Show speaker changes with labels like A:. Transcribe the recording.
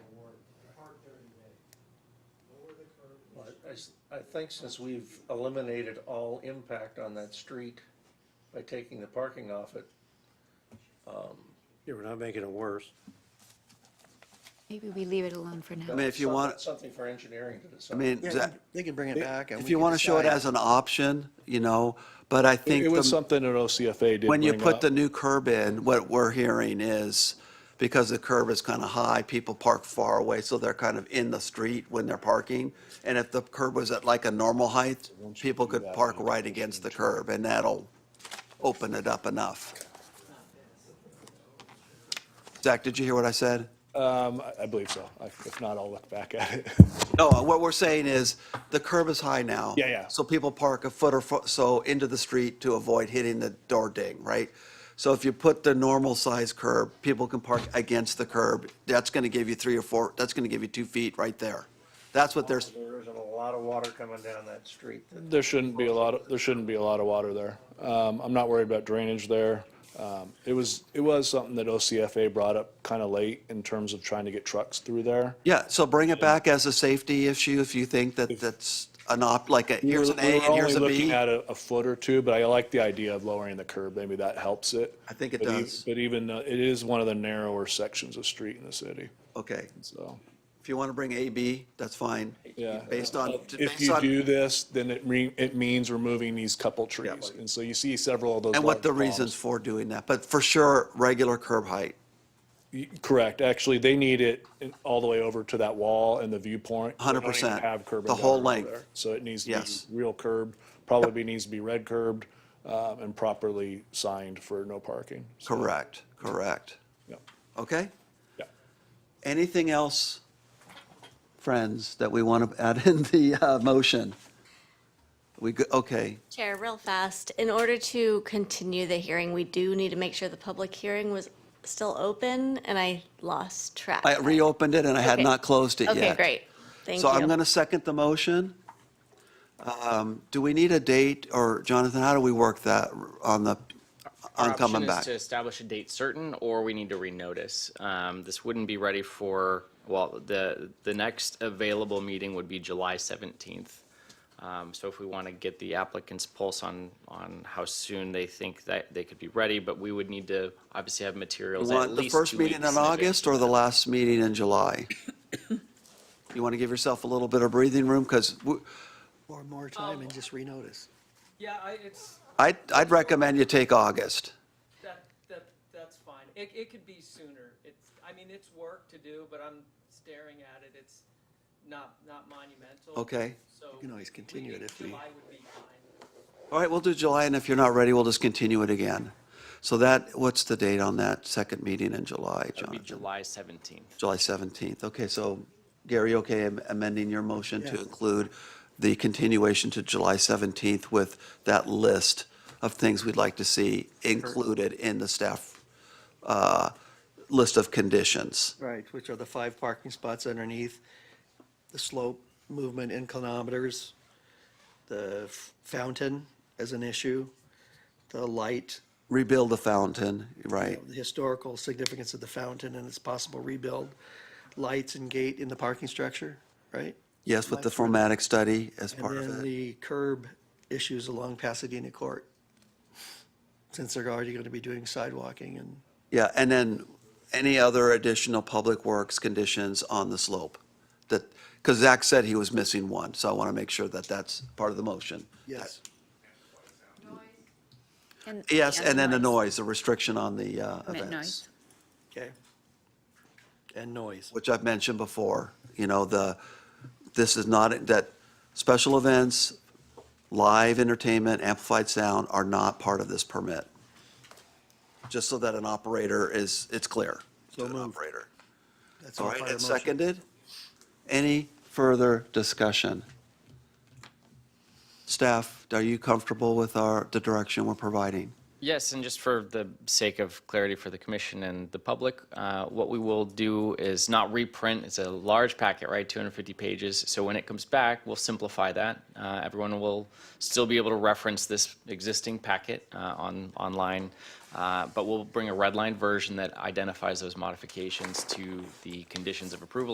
A: I, s- I think since we've eliminated all impact on that street by taking the parking off it,
B: Yeah, we're not making it worse.
C: Maybe we leave it alone for
A: I
C: now.
D: mean, if you want-
A: Something for engineering to
D: I
A: decide.
D: mean,
E: Yeah,
D: that-
E: They can bring it back. and
D: if
E: we
D: you
E: can
D: want to show it
E: decide.
D: as an option, you know, but I think.
F: It was
D: the-
F: something that OCFA did
D: When you
F: bring
D: put
F: up.
D: the new curb in, what we're hearing is, because the curb is kind of high, people park far away, so they're kind of in the street when they're parking. And if the curb was at like a normal height, people could park right against the curb, and that'll open it up enough. Zach, did you hear what I said?
F: Um, I- I believe so. I- If not, I'll look back at it.
D: No, what we're saying is, the curb is high now.
F: Yeah, yeah.
D: So people park a foot or fo- so into the street to avoid hitting the door ding, right? So if you put the normal size curb, people can park against the curb. That's gonna give you three or four, that's gonna give you two feet right there. That's what there's,
A: There isn't a lot of water coming down that street.
F: There shouldn't be a lot, of- there shouldn't be a lot of water there. Um, I'm not worried about drainage there. Um, It was, it was something that OCFA brought up kind of late in terms of trying to get trucks through there.
D: yeah, so bring it back as a safety issue if you think that that's an op, like a,
F: We were-
D: here's an
F: we
D: A
F: were
D: and here's a
F: only Looking
D: B.
F: at a, a foot or two, but I like the idea of lowering the curb. Maybe that helps it.
D: I think it
F: But e-
D: does.
F: But even, uh, it is one of the narrower sections of street in the city,
D: Okay,
F: so.
D: if you wanna bring A, B, that's fine.
F: Yeah.
D: Based on,
F: If
D: based
F: you
D: on,
F: do this, then it re, it means removing these couple trees. And so you see several of those.
D: and what
F: large
D: the
F: palms.
D: reasons for doing that, but for sure, regular curb height.
F: Y- Correct. Actually, they need it in- all the way over to that wall and the viewpoint. They don't even
D: 100%.
F: Have curb. and
D: The whole
F: gutter over
D: length.
F: there. So it needs to
D: Yes.
F: be real curb, probably needs to be red curbed, um, and properly signed for no parking. So,
D: Correct, correct.
F: yeah.
D: Okay?
F: Yeah.
D: Anything else, friends, that we want to add in the uh, motion? We, go- okay,
G: Chair, real fast, in order to continue the hearing, we do need to make sure the public hearing was still open, and I lost track.
D: I reopened it and I had
G: Okay.
D: not closed it yet.
G: Okay, great. Thank you.
D: So I'm going to second the motion. Um, Do we need a date, or Jonathan, how do we work that on the, on coming
H: option is
D: back?
H: to establish a date certain, or we need to renotice. Um, this wouldn't be ready for, well, the, the next available meeting would be July seventeenth. Um, so if we want to get the applicant's pulse on, on how soon they think that they could be ready, but we would need to obviously have materials at
D: Want the
H: least
D: first
H: two
D: meeting
H: weeks
D: in August
H: advance.
D: or the last meeting in July? You want to give yourself a little bit of breathing room, because
E: Or more time and just renotice.
I: Yeah, I, it's,
D: I'd, I'd recommend you take August.
I: that, that, that's fine. It, it could be sooner. It's, I mean, it's work to do, but I'm staring at it. It's not, not monumental.
D: Okay.
I: So.
E: You can always continue it if we-
I: July would be fine.
D: All right, we'll do July, and if you're not ready, we'll just continue it again. So that, what's the date on that second meeting in July,
H: It would be
D: Jonathan?
H: July seventeenth.
D: July 17th. Okay, so Gary, okay am- amending your motion to include the continuation to July 17th with that list of things we'd like to see included in the staff uh, list of conditions.
E: Right, which are the five parking spots underneath, the slope, movement in kilometers, the f- fountain as an issue, the light,
D: Rebuild the fountain, right?
E: the historical significance of the fountain and its possible rebuild, lights and gate in the parking structure, right?
D: Yes, with the formatic study as
E: And
D: part of it.
E: then the curb issues along Pasadena Court, since they're already going to be doing sidewalking and
D: Yeah, and then any other additional public works conditions on the slope? That, because Zach said he was missing one, so I want to make sure that that's part of the motion.
E: Yes.
D: Yes, and then the noise, the restriction on the uh, events,
E: Okay. And noise.
D: which I've mentioned before, you know, the, this is not, that special events, live entertainment, amplified sound are not part of this permit. Just so that an operator is, it's clear to
E: So
D: an
E: moved.
D: operator.
E: That's
D: All
E: all
D: right,
E: part of
D: it's
E: the motion.
D: seconded. Any further discussion? Staff, are you comfortable with our, the direction we're providing?
H: Yes, and just for the sake of clarity for the commission and the public, uh, what we will do is not reprint. It's a large packet, right? 250 pages. So when it comes back, we'll simplify that. Uh, Everyone will still be able to reference this existing packet uh, on, online, uh, but we'll bring a redlined version that identifies those modifications to the conditions of approval